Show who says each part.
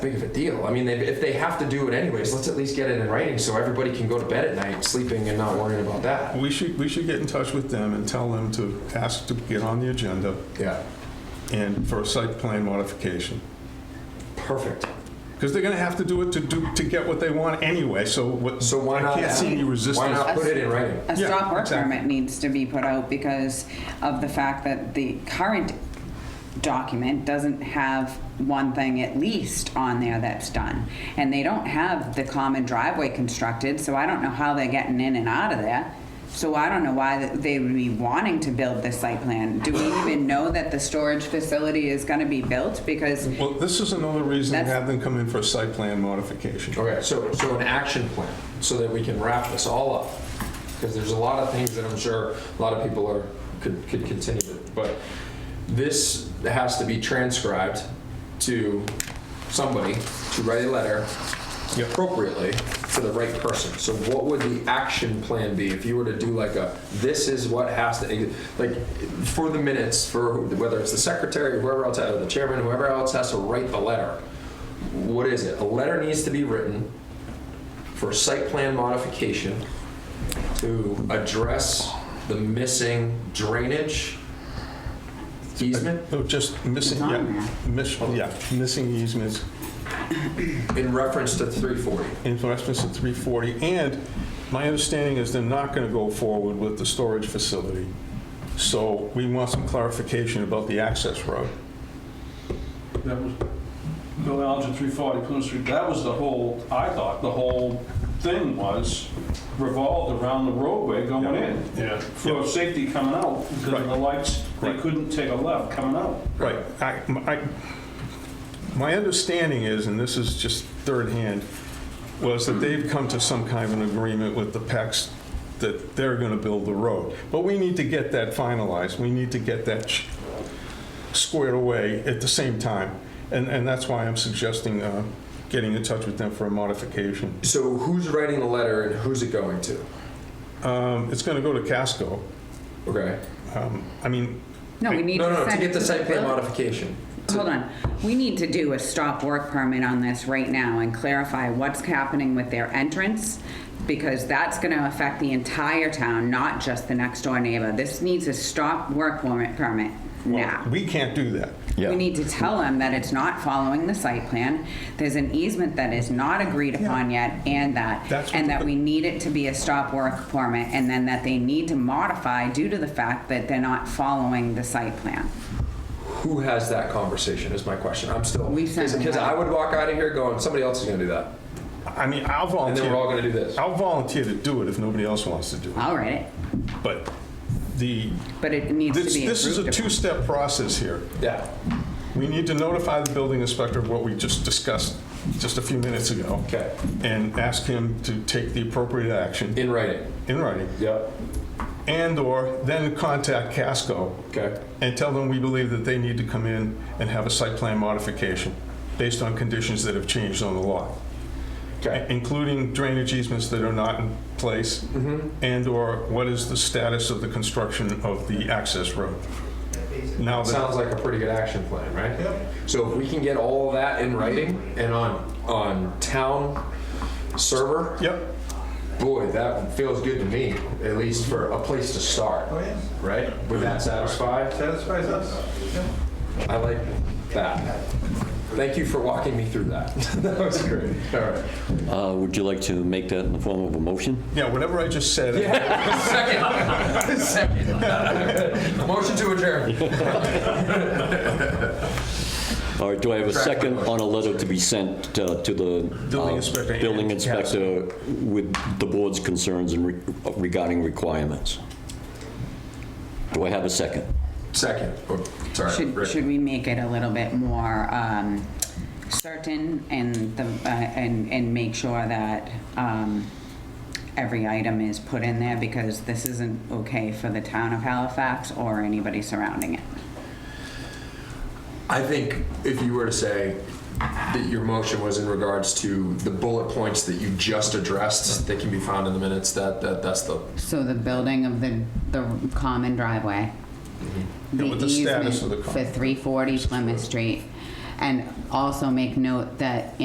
Speaker 1: big of a deal. I mean, they, if they have to do it anyways, let's at least get it in writing so everybody can go to bed at night sleeping and not worrying about that.
Speaker 2: We should, we should get in touch with them and tell them to ask to get on the agenda
Speaker 1: Yeah,
Speaker 2: and for a site plan modification.
Speaker 1: perfect.
Speaker 2: Because they're gonna have to do it to do, to get what they want anyway, so what,
Speaker 1: So why
Speaker 2: I
Speaker 1: not?
Speaker 2: can't see any
Speaker 1: Why
Speaker 2: resistance.
Speaker 1: not put it in writing?
Speaker 3: A
Speaker 2: Yeah,
Speaker 3: stop work
Speaker 2: exactly.
Speaker 3: permit needs to be put out because of the fact that the current document doesn't have one thing at least on there that's done. And they don't have the common driveway constructed, so I don't know how they're getting in and out of there. So I don't know why th- they would be wanting to build this site plan. Do we even know that the storage facility is gonna be built? Because
Speaker 2: Well, this is another reason to
Speaker 3: That's-
Speaker 2: have them come in for a site plan modification.
Speaker 1: Okay, so, so an action plan, so that we can wrap this all up. Because there's a lot of things that I'm sure a lot of people are, could, could continue with. But this has to be transcribed to somebody to write a letter
Speaker 2: Yep.
Speaker 1: appropriately to the right person. So what would the action plan be if you were to do like a, this is what has to, like, for the minutes, for whether it's the secretary, whoever else, or the chairman, whoever else has to write the letter. What is it? A letter needs to be written for site plan modification to address the missing drainage easement
Speaker 2: No, Oh, just missing,
Speaker 3: It's on
Speaker 2: yeah, miss, yeah, missing easements,
Speaker 1: in reference to 340.
Speaker 2: in reference to 340, and my understanding is they're not going to go forward with the storage facility. So we want some clarification about the access road.
Speaker 4: That was Bill Alger, 340 Plymouth Street. That was the whole, I thought, the whole thing was revolved around the roadway going in. Yeah. For safety coming out, because of the
Speaker 2: Right.
Speaker 4: lights, they
Speaker 2: Right.
Speaker 4: couldn't take a left coming out.
Speaker 2: Right. I- I- My understanding is, and this is just third hand, was that they've come to some kind of an agreement with the PECs that they're going to build the road. But we need to get that finalized. We need to get that sh- squared away at the same time. And, and that's why I'm suggesting uh, getting in touch with them for a modification.
Speaker 1: So who's writing the letter and who's it going to?
Speaker 2: Um, It's going to go to Casco.
Speaker 1: Okay.
Speaker 2: Um, I mean,
Speaker 3: No, we need to
Speaker 1: No,
Speaker 3: send
Speaker 1: no, to get
Speaker 3: it
Speaker 1: the site plan
Speaker 3: building-
Speaker 1: modification.
Speaker 3: Hold on, we need to do a stop work permit on this right now and clarify what's happening with their entrance, because that's gonna affect the entire town, not just the next door neighbor. This needs a stop work permit, permit now.
Speaker 2: we can't do that.
Speaker 3: We
Speaker 5: Yeah.
Speaker 3: need to tell them that it's not following the site plan, there's an easement that is not agreed upon yet, and that,
Speaker 2: That's what
Speaker 3: and
Speaker 2: the-
Speaker 3: that we need it to be a stop work permit, and then that they need to modify due to the fact that they're not following the site plan.
Speaker 1: Who has that conversation is my question. I'm still,
Speaker 3: We sent them
Speaker 1: because
Speaker 3: that.
Speaker 1: I would walk out of here going, somebody else is gonna do that.
Speaker 2: I mean, I'll
Speaker 1: And
Speaker 2: volunteer.
Speaker 1: then we're all gonna do this.
Speaker 2: I'll volunteer to do it if nobody else wants to do it.
Speaker 3: I'll write it.
Speaker 2: But the,
Speaker 3: But it needs to
Speaker 2: this,
Speaker 3: be
Speaker 2: this is a
Speaker 3: approved upon.
Speaker 2: two-step process here.
Speaker 1: Yeah.
Speaker 2: We need to notify the building inspector of what we just discussed just a few minutes ago.
Speaker 1: Okay.
Speaker 2: And ask him to take the appropriate action
Speaker 1: In writing.
Speaker 2: in writing.
Speaker 1: Yep.
Speaker 2: And/or then contact Casco
Speaker 1: Okay.
Speaker 2: and tell them we believe that they need to come in and have a site plan modification based on conditions that have changed on the lot.
Speaker 1: Okay.
Speaker 2: including drainage easements that are not in place, and/or what is the status of the construction of the access road? Now that,
Speaker 1: Sounds like a pretty good action plan, right? Yep. So if we can get all of that in writing and on, on town server,
Speaker 2: yep,
Speaker 1: boy, that feels good to me, at least for a place to start. Oh, yeah. Right? Would that satisfy?
Speaker 6: Satisfies us.
Speaker 1: I like that. Thank you for walking me through that. That was great. All right.
Speaker 5: Uh, Would you like to make that in the form of a motion?
Speaker 2: yeah, whatever I just said,
Speaker 1: Second. Second. Motion to adjourn.
Speaker 5: Or do I have
Speaker 1: Track
Speaker 5: a
Speaker 1: the
Speaker 5: second
Speaker 1: motion.
Speaker 5: on a letter to be sent uh, to the... uh,
Speaker 2: Building inspector and
Speaker 5: Building
Speaker 2: council.
Speaker 5: inspector with the board's concerns and re- regarding requirements? Do I have a second?
Speaker 1: Second. Oh, Sorry.
Speaker 3: Should,
Speaker 1: Rick.
Speaker 3: should we make it a little bit more um, certain and the, uh, and, and make sure that um, every item is put in there? Because this isn't okay for the town of Halifax or anybody surrounding it.
Speaker 1: I think if you were to say that your motion was in regards to the bullet points that you just addressed, that can be found in the minutes, that, that, that's the,
Speaker 3: So the building of the, the common driveway.
Speaker 2: Mm-hmm. Yeah, with the status
Speaker 3: easement
Speaker 2: of the common
Speaker 3: For 340 Plymouth Street, And also make note that